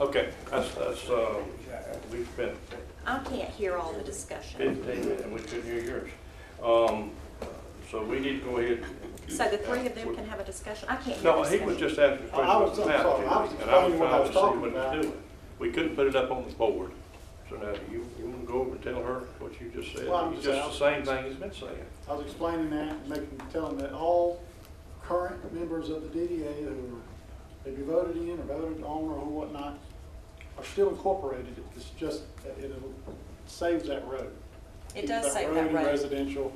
Okay, that's, that's, uh, we spent I can't hear all the discussion. fifteen minutes, and we couldn't hear yours. Um, so we need to go ahead. So the three of them can have a discussion. I can't hear No, he was discussion. just asking a question Oh, I was about the map, sorry, I was and I was explaining what I trying to was see talking what about. he's doing. We couldn't put it up on the board. So now, do you, you wanna go over and tell her what you just said? Well, I'm It's just Just the same thing he's been saying. I was explaining that, and making, telling that all current members of the DDA who maybe voted in or voted on or whatnot are still incorporated. It's just, that it saves that road. It does Keeps save that in road. Residential.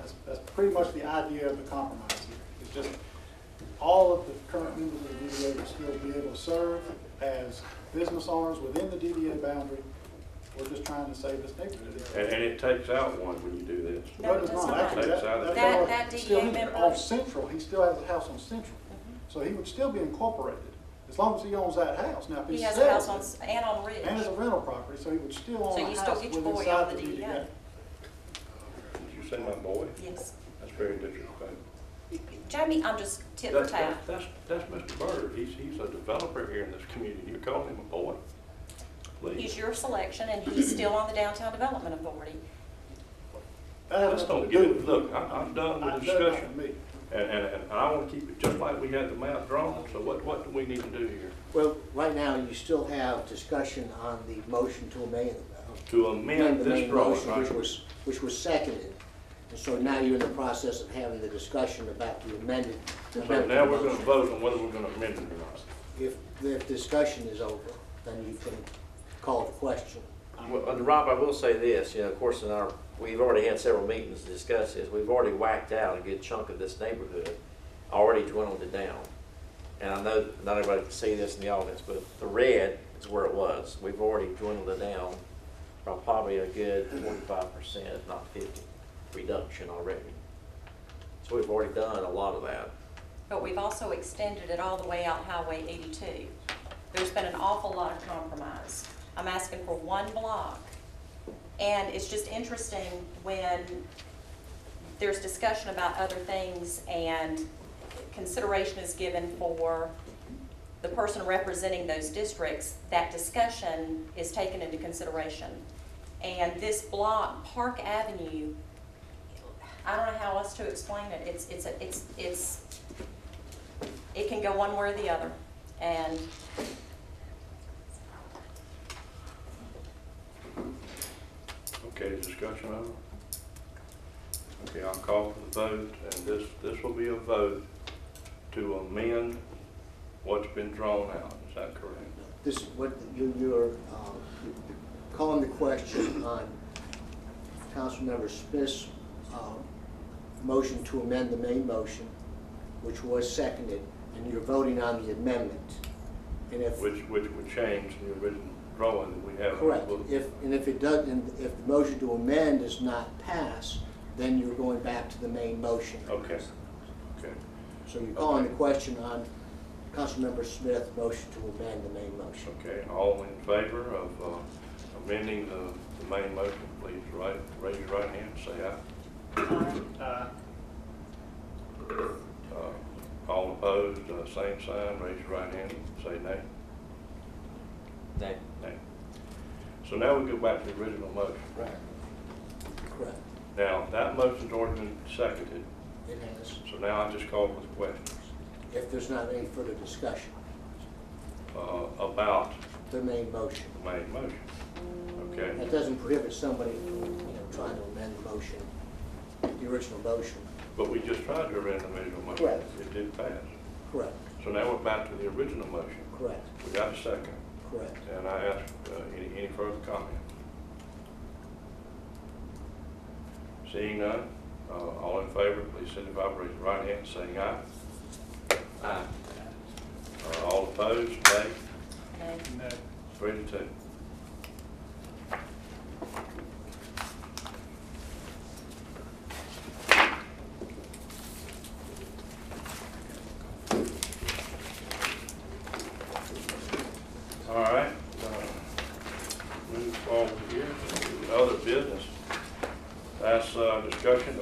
That's, that's pretty much the idea of the compromise here. It's just, all of the current members of the DDA will still be able to serve as business owners within the DDA boundary. We're just trying to save this neighborhood. And, and it takes out one when you do this. No, it it's does not. not. Actually, that- That- fellow that DDA still- member- On Central, he still has a house on Central, so he would still be incorporated, as long as he owns that house. Now, if he He has a house sells on, it, S- and on and it's a Ridge. rental property, so he would still So own you a still house get your with boy on inside the E the E DDA. DDA. Did you say my boy? Yes. That's very disrespectful. Jamie, I'm just tit for That's, tat. that's, that's- that's Mr. Bird. He's, he's a developer here in this community. You're calling him a boy? He's Please. your selection and he's still on the Downtown Development Authority. That has Let's don't nothing to get do it. with Look, I- I'm done with the discussion. me. And, and, and I want to keep it just like we had the map drawn, so what, what do we need to do here? Well, right now, you still have discussion on the motion to amend. uh, To amend amend the this main drawing, motion, right? Which was, which was seconded. And so now you're in the process of having the discussion about the amended. So amended now we're gonna motion. vote on whether we're gonna amend it or not. If, if discussion is over, then you can call the question. Well, and Rob, I will say this, you know, of course, in our, we've already had several meetings to discuss this. We've already whacked out a good chunk of this neighborhood, already dwindled it down. And I know not everybody can see this in the audience, but the red is where it was. We've already dwindled it down by probably a good forty-five percent, if not fifty, reduction already. So we've already done a lot of that. But we've also extended it all the way out Highway 82. There's been an awful lot of compromise. I'm asking for one block. And it's just interesting when there's discussion about other things and consideration is given for the person representing those districts, that discussion is taken into consideration. And this block, Park Avenue, I don't know how else to explain it. It's, it's, a- it's, it's, it can go one way or the other. And Okay, discussion over? Okay, I'll call for the vote, and this, this will be a vote to amend what's been drawn out, is that correct? This, what, you, you're, um, calling the question on Councilmember Smith's, um, motion to amend the main motion, which was seconded, and you're voting on the amendment. And if, Which, which would change the original drawing that we have. correct, if, and if it doesn't, if the motion to amend does not pass, then you're going back to the main motion. Okay, okay. So you're calling the question on Councilmember Smith's motion to amend the main motion. Okay, all in favor of uh, amending the, the main motion, please right, raise your right hand, and say aye. Uh, Uh, All opposed, uh, same sign, raise your right hand, and say nay, That, nay. So now we go back to the original motion. Right. Correct, Now, that motion's already been seconded, it has, so now I just call for the question if there's not any further discussion. uh, about the main motion. the main motion. Okay, That doesn't prohibit somebody from, you know, trying to amend the motion, the original motion. but we just tried to amend the original motion. Correct. It didn't pass. Correct, So now we're back to the original motion. correct, We got a second. correct. And I ask, uh, any, any further comment? Seeing none, uh, all in favor, please signify by raising your right hand, saying aye. aye. Uh, all opposed, nay, and no. three to two. All right, uh, move forward here, to other business. That's, uh, discussion